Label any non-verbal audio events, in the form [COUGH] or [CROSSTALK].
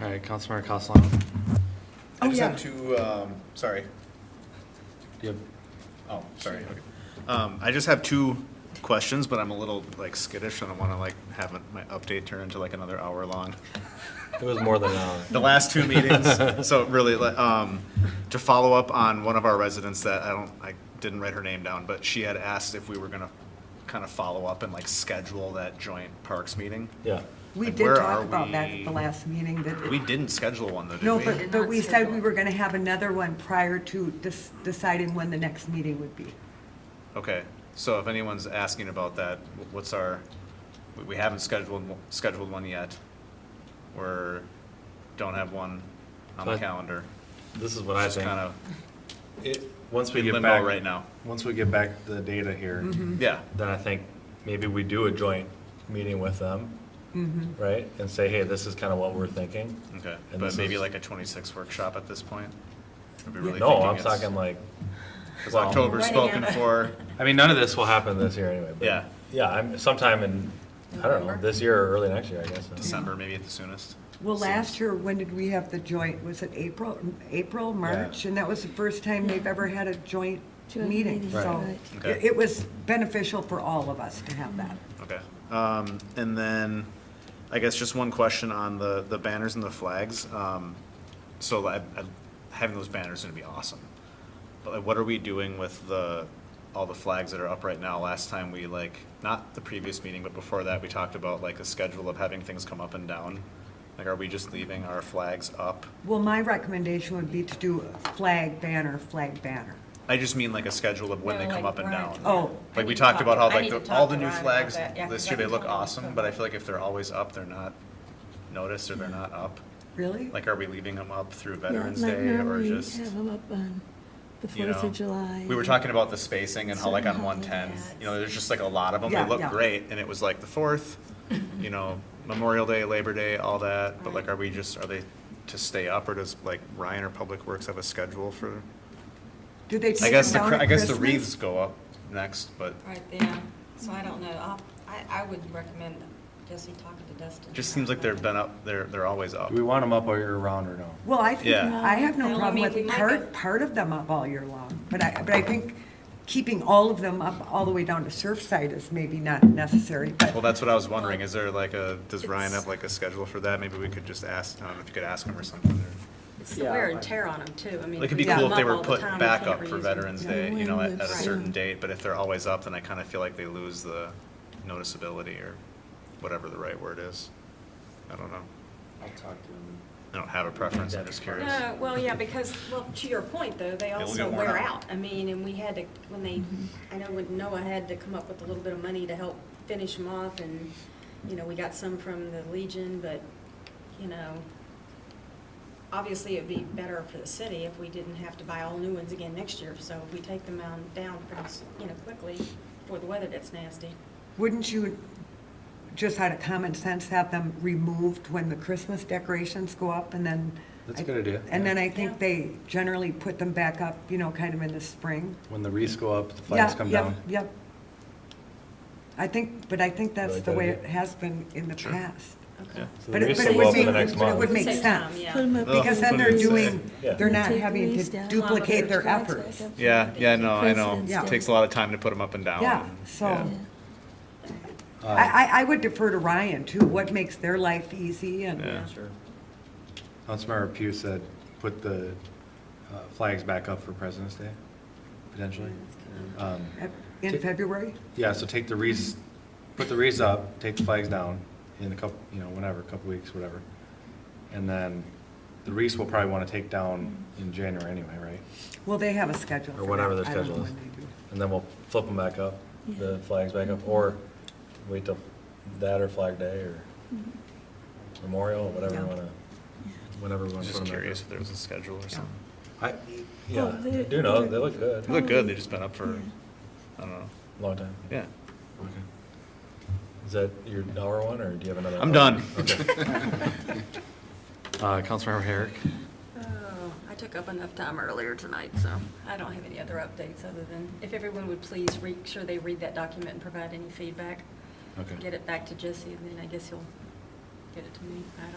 All right, Councilmember Costello, do I Oh, just yeah. have two, um, sorry, you have oh, sorry, okay. Um, I just have two questions, but I'm a little like skittish, I don't wanna like have my update turn into like another hour long. It was more than uh, an hour. the last [LAUGHS] two meetings. So really, like, um, to follow up on one of our residents that I don't, I didn't write her name down, but she had asked if we were gonna kind of follow up and like schedule that joint parks meeting. Yeah. We Like, did where are talk about that at the we- last meeting, that, We it- didn't schedule one though, did we? no, did but, but not we said we schedule. were gonna have another one prior to dis- deciding when the next meeting would be. Okay, so if anyone's asking about that, wh- what's our, we- we haven't scheduled, one- scheduled one yet. We're, don't have one on the So I- calendar. This is what I It's just think. kind of It- Once we in get limbo back. right now. Once we get back the data here, Mm-hmm. Yeah, then I think maybe we do a joint meeting with them, Mm-hmm. right? And say, hey, this is kind of what we're thinking. okay, And but this maybe is- like a twenty-six workshop at this point? Are we Yeah. really No, thinking I'm it's- talking like, Because Well- October's spoken for, I mean, none of this will happen this year anyway. but- Yeah. Yeah, I'm sometime in, I don't know, November? this year or early next year, I guess. December maybe at the soonest. Well, last year, when did we have the joint, was it April, April, March? And that was the first time they've ever had a joint Joint meeting, meeting, so right. Okay. it it was beneficial for all of us to have that. Okay. Um, and then, I guess just one question on the, the banners and the flags. Um, so I, I, having those banners is gonna be awesome. But like, what are we doing with the, all the flags that are up right now? Last time we like, not the previous meeting, but before that, we talked about like a schedule of having things come up and down. Like, are we just leaving our flags up? Well, my recommendation would be to do flag banner, flag banner. I just mean like a schedule of when No, they come like, up and we're down. not doing Oh, Like we I need to talked talk- about how I like need to the- talk all to the new Ron about flags that, yeah, 'cause this I year, they haven't look told him, awesome, so- but I feel like if they're always up, they're not noticed or they're not up. Really? Like, are we leaving them up through Yeah, Veterans like Day or normally just, Have them up on the you Fourth know? of July. We were talking about the spacing and how like on Certain one ten, holidays. you know, there's just like a lot of them. They Yeah, look yeah. great and it was like the fourth, you know, Memorial Day, Labor Day, all that. But like, Right. are we just, are they to stay up or does like Ryan or Public Works have a schedule for? Do they I take guess, them the down cr- at I guess the Christmas? wreaths go up next, but Right, yeah, so I don't know, I'll- I, I would recommend Jesse talking to Dustin. Just seems like they've been up, they're, they're always up. Do we want them up all year round or no? Well, I think, Yeah. I have no Well, I problem mean, we with might part, have- part of them up all year long, but I, but I think keeping all of them up all the way down to Surfside is maybe not necessary, Well, but that's what I was wondering, is there like a, does Ryan It's- have like a schedule for that? Maybe we could just ask, I don't know if you could ask him or something. or- It's the wear and tear on them too, I mean. Like, it'd be Yeah. cool if they them were all the put time, you back can't up for reuse them. Veterans Yeah, Day, you when know, at they've at a Right. certain date, but if they're always up, then I kind of feel like they lose the noticeability or whatever the right word is. I don't know. I'll talk to him. I don't have a preference, I'm just curious. No, well, yeah, because, well, to your point though, they They'll also get worn wear out. out. I mean, and we had to, when they, Mm-hmm. I know when Noah had to come up with a little bit of money to help finish them off and, you know, we got some from the Legion, but, you know, obviously it'd be better for the city if we didn't have to buy all new ones again next year. So if we take them down, down pretty, s- you know, quickly before the weather gets nasty. wouldn't you, just out of common sense, have them removed when the Christmas decorations go up and then? That's a good idea. And then I Yeah. think they generally put them back up, you know, kind of in the spring. When the wreaths go up, the flags Yeah, come yep, down. Yep. I think, but I think that's Like the that way idea? it has been in the Sure. past. Okay. So But the it- race but it will would go up in be- the next but it would month. make Save sense. time, yeah. Put 'em up Well, Because again. then they're Yeah. doing, Oh, Yeah. they're not Take having these to down. duplicate their Flags back efforts. up. Yeah, yeah, no, I know. President's Yeah. It Day. Takes a lot of time to put them up and down. Yeah, and- so- yeah. Uh, I, I, I would defer to Ryan too, what makes their life easy and, Yeah. Sure. Councilmember Pugh said, put the uh, flags back up for President's Day, potentially. Um, in February? Yeah, so take the wreaths, put the wreaths up, take the flags down in a couple, you know, whenever, a couple weeks, whatever. And then the wreaths we'll probably want to take down in January anyway, right? Well, they have a schedule. Or for whatever that. their I don't schedule know is. when they do. And then we'll flip them back up, the flags back up, or wait till that or Flag Day or Mm-hmm. Memorial, whatever Yeah. we wanna, whenever we I wanna was put just 'em back curious up. if there was a schedule or something. I, Well, yeah, they- do know, they look good, They look good, they've just been up for, Yeah. I don't know, long time. yeah. Okay. Is that your hour one, or do you have another? I'm hour? done. Okay. [LAUGHS] [LAUGHS] Uh, Councilmember Herrick? Oh, I took up enough time earlier tonight, so I don't have any other updates other than if everyone would please make sure they read that document and provide any feedback. Okay. Get it back to Jesse, and then I guess he'll get it to me. I don't